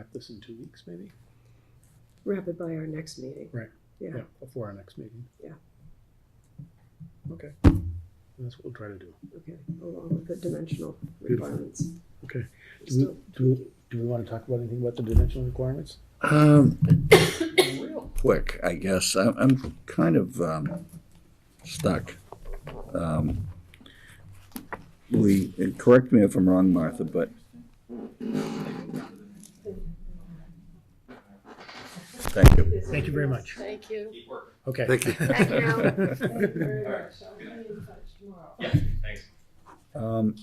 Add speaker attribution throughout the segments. Speaker 1: Back this in two weeks, maybe?
Speaker 2: wrap it by our next meeting.
Speaker 1: Right.
Speaker 2: Yeah.
Speaker 1: Before our next meeting?
Speaker 2: Yeah.
Speaker 1: Okay. That's what we'll try to do.
Speaker 2: Okay, along with the dimensional
Speaker 1: Beautiful.
Speaker 2: requirements.
Speaker 1: Okay. Do we,
Speaker 2: Still-
Speaker 1: do we, do we wanna talk about anything about the dimensional requirements?
Speaker 3: Um, real quick, I guess, I'm, I'm kind of, um, stuck. Um, We, and correct me if I'm wrong, Martha, but. Thank you.
Speaker 1: Thank you very much.
Speaker 4: Thank you.
Speaker 1: Okay.
Speaker 3: Thank you. Thank
Speaker 4: Thank you
Speaker 3: you.
Speaker 4: very much. I'll be in touch tomorrow.
Speaker 3: Um,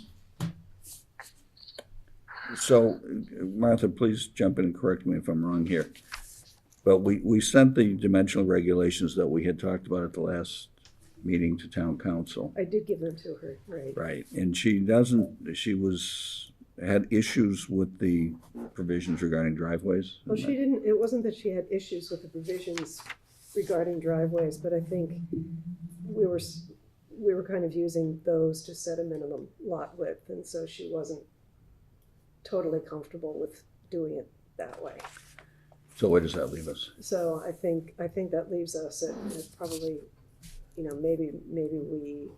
Speaker 3: So Martha, please jump in and correct me if I'm wrong here. But we, we sent the dimensional regulations that we had talked about at the last meeting to town council.
Speaker 2: I did give them to her, right.
Speaker 3: Right, and she doesn't, she was, had issues with the provisions regarding driveways.
Speaker 2: Well, she didn't, it wasn't that she had issues with the provisions regarding driveways, but I think we were, s- we were kind of using those to set a minimum lot width, and so she wasn't totally comfortable with doing it that way.
Speaker 3: So where does that leave us?
Speaker 2: So I think, I think that leaves us at at probably, you know, maybe, maybe we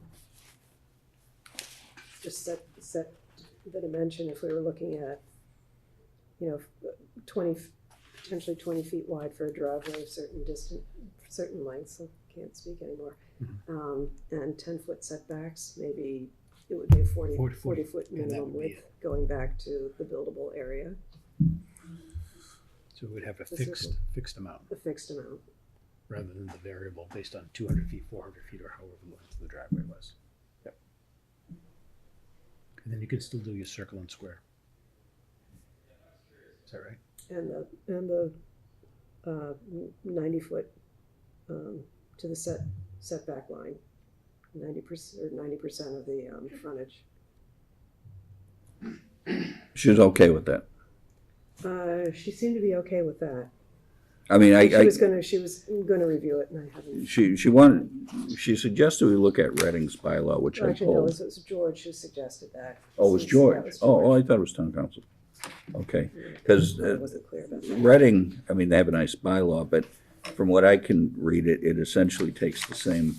Speaker 2: just set, set the dimension if we were looking at, you know, twenty, potentially twenty feet wide for a driveway, certain distance, certain lengths, I can't speak anymore.
Speaker 1: Mm-hmm.
Speaker 2: Um, and ten foot setbacks, maybe it would be a forty,
Speaker 1: Forty-
Speaker 2: forty foot
Speaker 1: and that
Speaker 2: minimum
Speaker 1: would be
Speaker 2: width, going back to the buildable area,
Speaker 1: So we'd have a
Speaker 2: This is-
Speaker 1: fixed, fixed amount
Speaker 2: a fixed amount.
Speaker 1: rather than the variable based on two hundred feet, four hundred feet, or however long the driveway was. Yep. And then you can still do your circle and square. Is that right?
Speaker 2: And the, and the, uh, ninety foot, um, to the set, setback line. Ninety percent, or ninety percent of the, um, frontage.
Speaker 3: She's okay with that.
Speaker 2: Uh, she seemed to be okay with that.
Speaker 3: I mean, I,
Speaker 2: She
Speaker 3: I,
Speaker 2: was gonna, she was gonna review it and I haven't.
Speaker 3: she, she wanted, she suggested we look at Redding's bylaw, which I
Speaker 2: Actually, no, it
Speaker 3: told.
Speaker 2: was, it was George who suggested that.
Speaker 3: Oh, it was
Speaker 2: Since that
Speaker 3: George.
Speaker 2: was
Speaker 3: Oh, oh,
Speaker 2: George.
Speaker 3: I thought it was town council. Okay, uh, because
Speaker 2: I wasn't clear about that.
Speaker 3: Reading, I mean, they have a nice bylaw, but from what I can read it, it essentially takes the same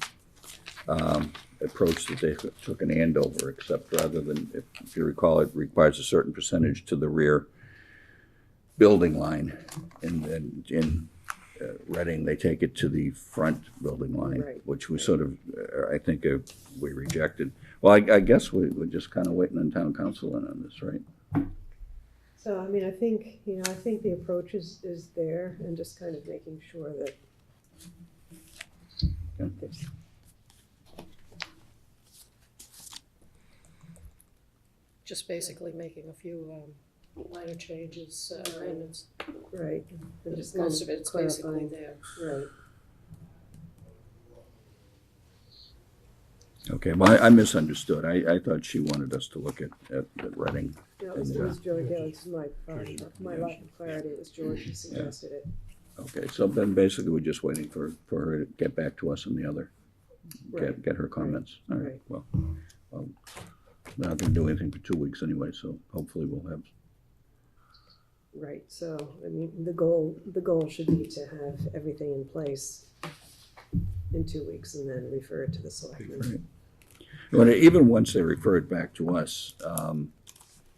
Speaker 3: um, approach that they took in Andover, except rather than, if- if you recall, it requires a certain percentage to the rear building line. And then in uh, Reading, they take it to the front building line,
Speaker 2: Right.
Speaker 3: which we sort of, uh, I think, uh, we rejected. Well, I, I guess we, we're just kind of waiting on town council in on this, right?
Speaker 2: So, I mean, I think, you know, I think the approach is, is there and just kind of making sure that
Speaker 3: Yeah.
Speaker 2: there's
Speaker 4: Just basically making a few um, minor changes, uh, amendments.
Speaker 2: Right. and just kind
Speaker 4: Most of it's basically
Speaker 2: clarifying.
Speaker 4: there.
Speaker 2: Right,
Speaker 3: Okay, well, I I misunderstood. I, I thought she wanted us to look at, at at Reading.
Speaker 2: no, it was, it was George, yeah, it's my, um, my lack of clarity, it was George who suggested it,
Speaker 3: Okay, so then basically we're just waiting for, for her to get back to us on the other,
Speaker 2: right,
Speaker 3: get, get her comments. All right,
Speaker 2: Right.
Speaker 3: well, well, we're not gonna do anything for two weeks anyway, so hopefully we'll have,
Speaker 2: right, so, I mean, the goal, the goal should be to have everything in place in two weeks and then refer it to the selectmen.
Speaker 3: but even once they refer it back to us, um,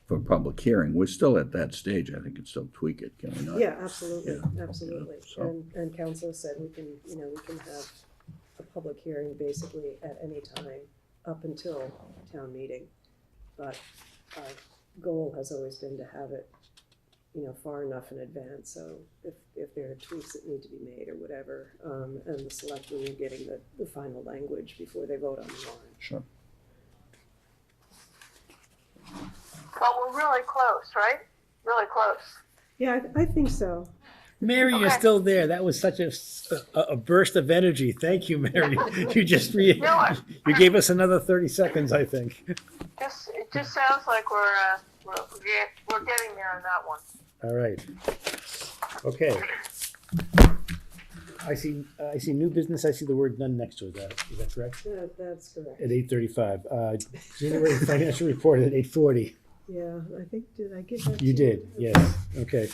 Speaker 3: for public hearing, we're still at that stage. I think it's still tweak it, can we not?
Speaker 2: Yeah, absolutely,
Speaker 3: Yeah,
Speaker 2: absolutely,
Speaker 3: yeah, so-
Speaker 2: and, and council said we can, you know, we can have a public hearing basically at any time up until town meeting. But our goal has always been to have it, you know, far enough in advance, so if, if there are tweaks that need to be made or whatever, um, and the selectmen are getting the, the final language before they vote on the warrant.
Speaker 3: Sure.
Speaker 5: Well, we're really close, right? Really close.
Speaker 2: Yeah, I, I think so.
Speaker 1: Mary, you're
Speaker 5: Okay.
Speaker 1: still there. That was such a, s- a- a burst of energy. Thank you, Mary. You just re,
Speaker 5: No, I-
Speaker 1: you gave us another thirty seconds, I think.
Speaker 5: Just it just sounds like we're uh, we're, yeah, we're getting there on that one.
Speaker 1: All right. Okay. I see, I see new business. I see the word none next to it. Is that- Is that correct?
Speaker 2: That, that's correct.
Speaker 1: At eight thirty-five, uh, January financial report at eight forty.
Speaker 2: yeah, I think, did I give that to
Speaker 1: You did, yes, okay.